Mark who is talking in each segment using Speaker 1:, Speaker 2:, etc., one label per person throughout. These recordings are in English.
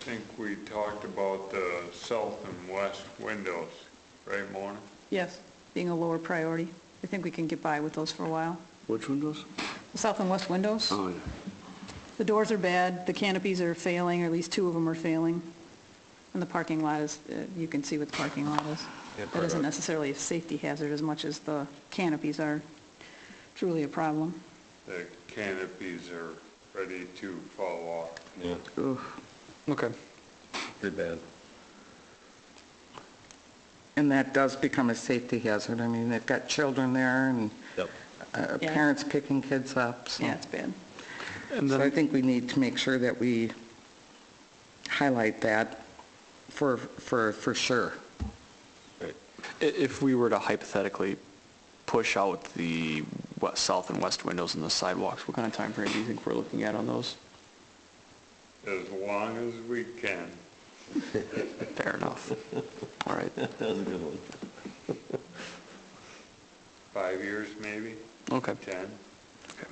Speaker 1: think we talked about the south and west windows, right, Mona?
Speaker 2: Yes, being a lower priority. I think we can get by with those for a while.
Speaker 3: Which windows?
Speaker 2: The south and west windows,
Speaker 3: Oh, yeah.
Speaker 2: the doors are bad, the canopies are failing, or at least two of them are failing. And the parking lot is, uh, you can see what the parking lot is. That isn't necessarily a safety hazard as much as the canopies are truly a problem.
Speaker 1: The canopies are ready to fall off.
Speaker 4: Yeah,
Speaker 3: Oof.
Speaker 5: Okay.
Speaker 4: pretty bad.
Speaker 6: And that does become a safety hazard. I mean, they've got children there and
Speaker 4: Yep.
Speaker 6: uh,
Speaker 2: Yeah.
Speaker 6: parents picking kids up, so.
Speaker 2: Yeah, it's bad.
Speaker 5: And
Speaker 6: So I
Speaker 5: then,
Speaker 6: think we need to make sure that we highlight that for, for, for sure.
Speaker 5: i- if we were to hypothetically push out the we- south and west windows and the sidewalks, what kind of time frame do you think we're looking at on those?
Speaker 1: As long as we can.
Speaker 5: Fair enough. All right.
Speaker 4: That was a good one.
Speaker 1: Five years, maybe?
Speaker 5: Okay.
Speaker 1: 10?
Speaker 5: Okay.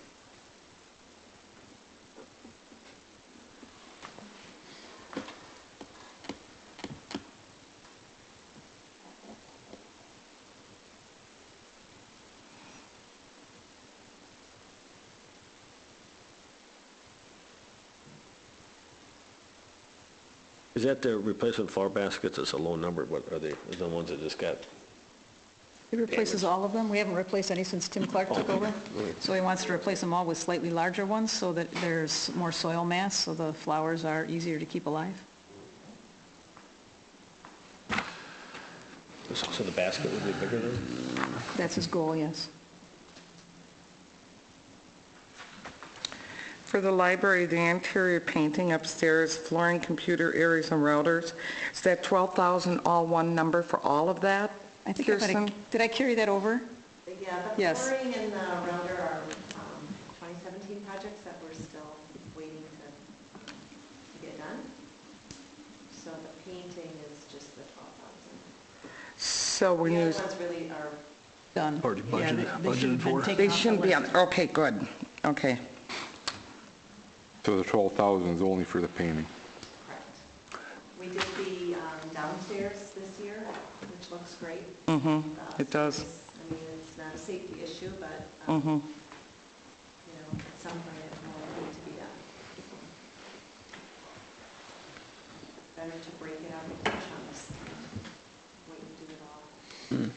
Speaker 4: Is that the replacement flower baskets? It's a low number, but are they, is the ones that just got,
Speaker 2: It replaces all of them. We haven't replaced any since Tim Clark took over. So he wants to replace them all with slightly larger ones so that there's more soil mass, so the flowers are easier to keep alive.
Speaker 4: so the basket would be bigger than?
Speaker 2: That's his goal, yes.
Speaker 6: For the library, the interior painting upstairs, flooring, computer areas and routers, is that 12,000 all one number for all of that?
Speaker 2: I think I
Speaker 6: Kirsten?
Speaker 2: better, did I carry that over?
Speaker 7: Yeah, the
Speaker 2: Yes.
Speaker 7: flooring and the router are um, 2017 projects that we're still waiting to to get done. So the painting is just the 12,000.
Speaker 6: So we
Speaker 7: The
Speaker 6: need,
Speaker 7: other ones really are,
Speaker 2: Done.
Speaker 3: Already
Speaker 2: Yeah, they-
Speaker 3: budgeted-
Speaker 2: they should have been
Speaker 3: budgeted for.
Speaker 2: taken
Speaker 6: they
Speaker 2: off the
Speaker 6: shouldn't be on,
Speaker 2: list.
Speaker 6: okay, good, okay.
Speaker 8: So the 12,000 is only for the painting?
Speaker 7: correct. We did the um, downstairs this year, which looks great.
Speaker 6: Mm-hmm,
Speaker 7: Uh,
Speaker 6: it does.
Speaker 7: it's- I mean, it's not a safety issue, but, um, you
Speaker 6: Mm-hmm.
Speaker 7: know, at some point it will need to be done. Better to break it up into chunks, wait and do it all.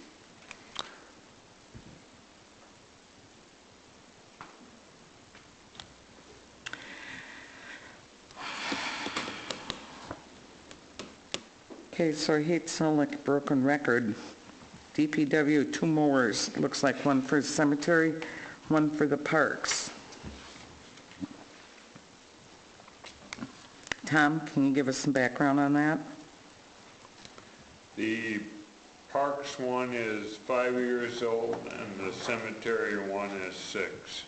Speaker 6: Okay, so I hate to sound like a broken record. DPW, two mowers, looks like one for the cemetery, one for the parks. Tom, can you give us some background on that?
Speaker 1: The parks one is five years old and the cemetery one is six.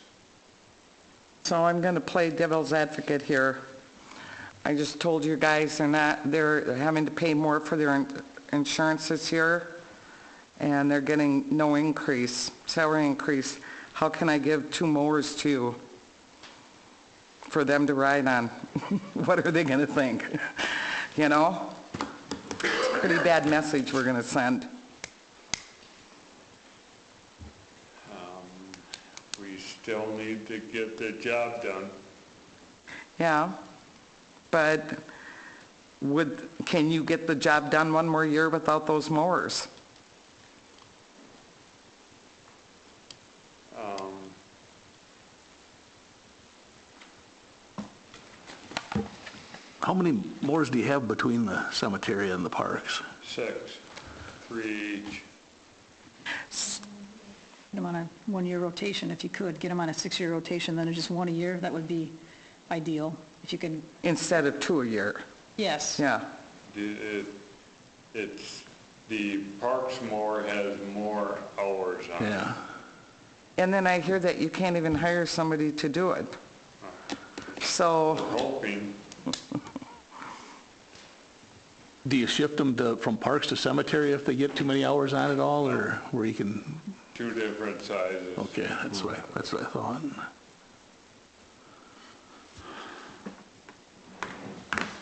Speaker 6: So I'm going to play devil's advocate here. I just told you guys they're not, they're having to pay more for their in- insurance this year, and they're getting no increase, salary increase. How can I give two mowers to you for them to ride on? What are they going to think? You know? It's a pretty bad message we're going to send.
Speaker 1: We still need to get the job done.
Speaker 6: Yeah, but would, can you get the job done one more year without those mowers?
Speaker 1: Um,
Speaker 3: How many mowers do you have between the cemetery and the parks?
Speaker 1: Six, three each.
Speaker 2: Get them on a one-year rotation if you could. Get them on a six-year rotation, then it's just one a year. That would be ideal if you can,
Speaker 6: Instead of two a year,
Speaker 2: yes.
Speaker 6: yeah.
Speaker 1: The- it- It's, the parks more has more hours on it.
Speaker 3: Yeah.
Speaker 6: And then I hear that you can't even hire somebody to do it. So,
Speaker 1: We're hoping,
Speaker 3: Do you shift them to, from parks to cemetery if they get too many hours on it all, or where you can,
Speaker 1: two different sizes.
Speaker 3: okay, that's what, I- that's what I thought.